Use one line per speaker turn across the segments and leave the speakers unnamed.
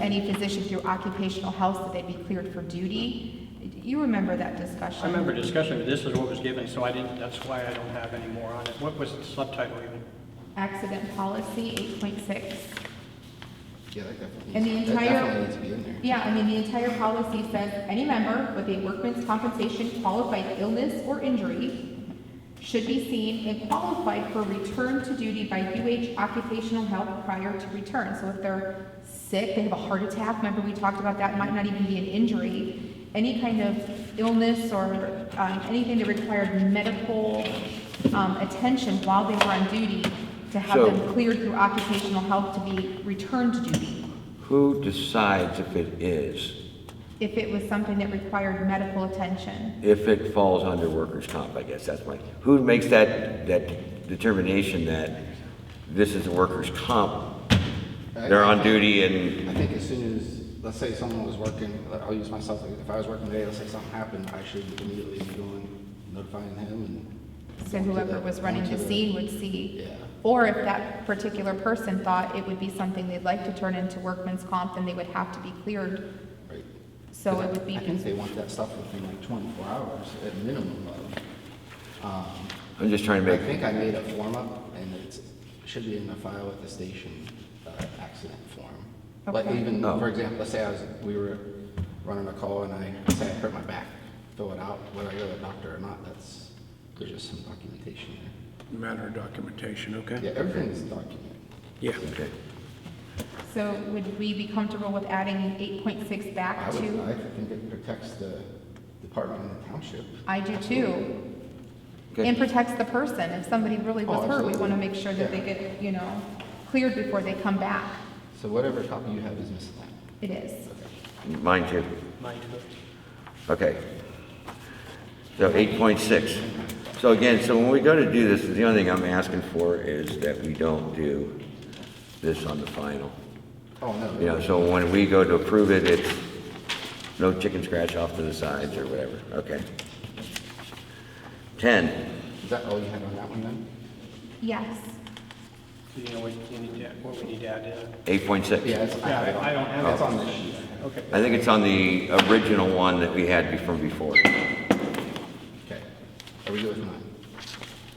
any physician through occupational health that they be cleared for duty. You remember that discussion?
I remember discussing, but this is what was given, so I didn't, that's why I don't have any more on it. What was the subtitle even?
Accident policy, eight point six.
Yeah, that definitely.
And the
needs-
entire-
That definitely needs to be in there.
Yeah, I mean, the entire policy says any member with a workman's compensation qualified illness or injury should be seen and qualified for return to duty by UH occupational health prior to return. So if they're sick, they have a heart attack, remember we talked about that, might not even be an injury. Any kind of illness or, um, anything that required medical, um, attention while they were on duty to have
So-
them cleared through occupational health to be returned to duty.
Who decides if it is,
if it was something that required medical attention.
if it falls under workers' comp, I guess that's my, who makes that, that determination that this is a workers' comp? They're on duty and,
I think as soon as, let's say someone was working, I'll use myself, if I was working today, let's say something happened, I should immediately be going, notifying him and.
So whoever was running the scene would see.
Yeah.
Or if that particular person thought it would be something they'd like to turn into workman's comp, then they would have to be cleared.
Right.
So it would be,
I think they want that stuff within like twenty-four hours at minimum of. um,
I'm just trying to
I
make,
think I made a form up and it's, should be in the file with the station, uh, accident form. But
Okay.
even,
Oh.
for example, let's say I was, we were running a call and I say I hurt my back, fill it out, whether I go to the doctor or not, that's, there's just some documentation
Matter of documentation,
there.
okay?
Yeah, everything's documented.
Yeah.
okay.
so would we be comfortable with adding eight point six
I
back
would, I
to?
think it protects the department and the township.
I do too.
Okay.
And protects the person. If somebody really was
Oh,
hurt, we want to
absolutely.
make sure that they
Yeah.
get, you know, cleared before they come back.
So whatever copy you have is misaligned.
It is.
Mine too.
Mine too.
Okay. So eight point six. So again, so when we go to do this, the only thing I'm asking for is that we don't do this on the final.
Oh, no.
You know, so when we go to approve it, it's no chicken scratch off to the sides or whatever, okay? Ten,
Is that all you had on that one then?
Yes.
Do you know what you need to, what we need to add in?
eight point six.
Yeah, it's, I
Yeah, I- I don't have
It's
it.
on this sheet.
Okay.
I think it's on the original one that we had before, before.
Okay. Are we good with mine?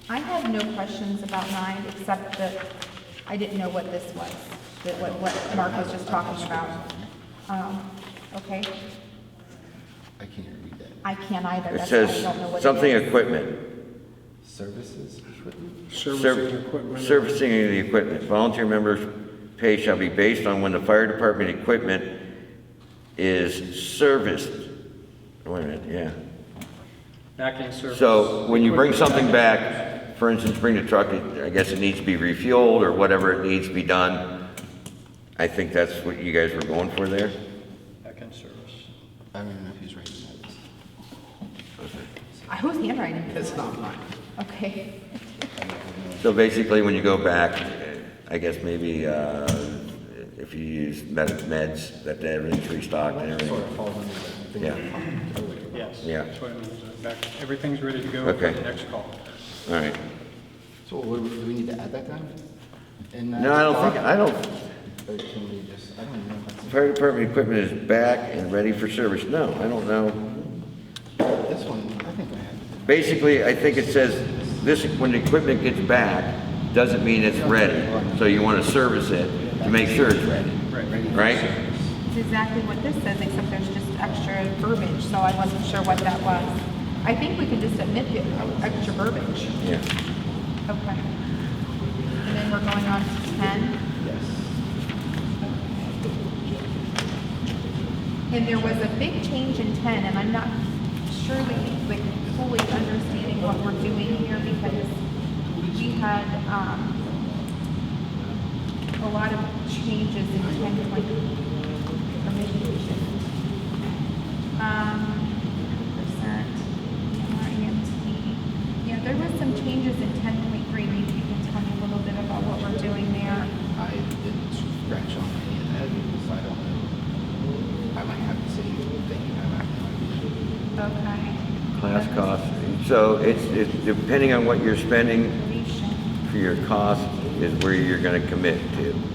I had no questions about nine, except that I didn't know what this was, that what, what Mark was just talking about. Um, okay,
I can't read that.
I can't either,
It
that's why I
says
don't know what it is.
something equipment.
Services, equipment?
Servicing
Serv-
equipment.
Servicing of the equipment. Volunteer members' pay shall be based on when the fire department equipment is serviced. Wait a minute, yeah.
Back in service.
So when you bring something back, for instance, bring the truck, I guess it needs to be refueled or whatever it needs to be done. I think that's what you guys were going for there.
Back in service.
I don't even know who's writing that.
I was handwriting this,
It's not mine.
okay.
So basically, when you go back, I guess maybe uh, if you use med- meds, that they everything's restocked and
Sort
everything.
of falls under the thing.
Yeah.
we're talking about earlier.
Yes.
Yeah.
That's what I mean, is that back- everything's ready to go for
Okay.
the next call.
All right.
So what, do we- do we need to add that down? In that
No, I don't think,
doc?
I don't,
Or can we just, I don't even know. if that's-
fire department equipment is back and ready for service. No, I don't know.
This one, I think I have.
Basically, I think it says, this, when the equipment gets back, doesn't mean it's ready. So you want to service it to make sure it's ready,
Right.
right?
It's exactly what this says, except there's just extra verbiage, so I wasn't sure what that was. I think we could just admit it, extra verbiage,
Yeah.
okay. And then we're going on to ten.
Yes.
And there was a big change in ten, and I'm not surely, like, fully understanding what we're doing here because we had, um, a lot of changes in ten point commission. Um, percent, MRMT. Yeah, there was some changes in ten point three. Maybe you can tell me a little bit about what we're doing there.
I didn't scratch on any of that because I don't know. I might have the same thing you have. I have no idea.
Okay.
Class cost, so it's, it's depending on what you're spending
Deletion.
for your cost is where you're going to commit to.